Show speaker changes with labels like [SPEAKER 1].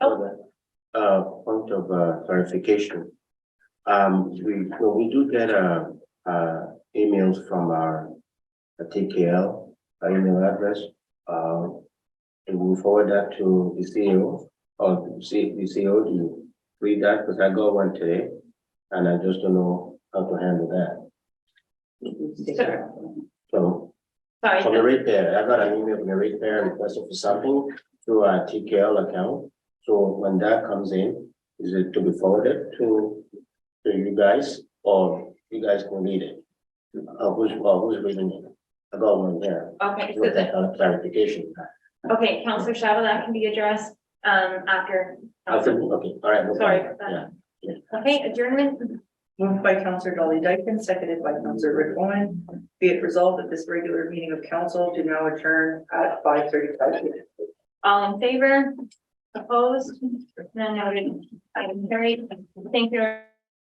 [SPEAKER 1] Uh, point of uh, clarification. Um, we, well, we do get, uh, uh, emails from our uh, TKL, our email address. Uh, and we forward that to the CEO or C, the CEO, do you read that? Because I got one today and I just don't know how to handle that. So
[SPEAKER 2] Sorry,
[SPEAKER 1] from the repair, I got an email from the repair requesting for something through our TKL account. So when that comes in, is it to be forwarded to, to you guys or you guys can read it? Uh, who's, well, who's reading it? I got one there.
[SPEAKER 2] okay, so
[SPEAKER 1] Look
[SPEAKER 2] the,
[SPEAKER 1] at that clarification.
[SPEAKER 2] okay, Counselor Shabba, that can be addressed, um, after.
[SPEAKER 1] I think, okay, all right. no problem.
[SPEAKER 2] Sorry about
[SPEAKER 1] Yeah.
[SPEAKER 2] that. Okay, adjournment,
[SPEAKER 3] Moved by Counselor Dolly Dyken, seconded by Counselor Rick Owen. Be it resolved that this regular meeting of council do now adjourn at five thirty-five.
[SPEAKER 2] all in favor, opposed, none noted, item carried, thank you.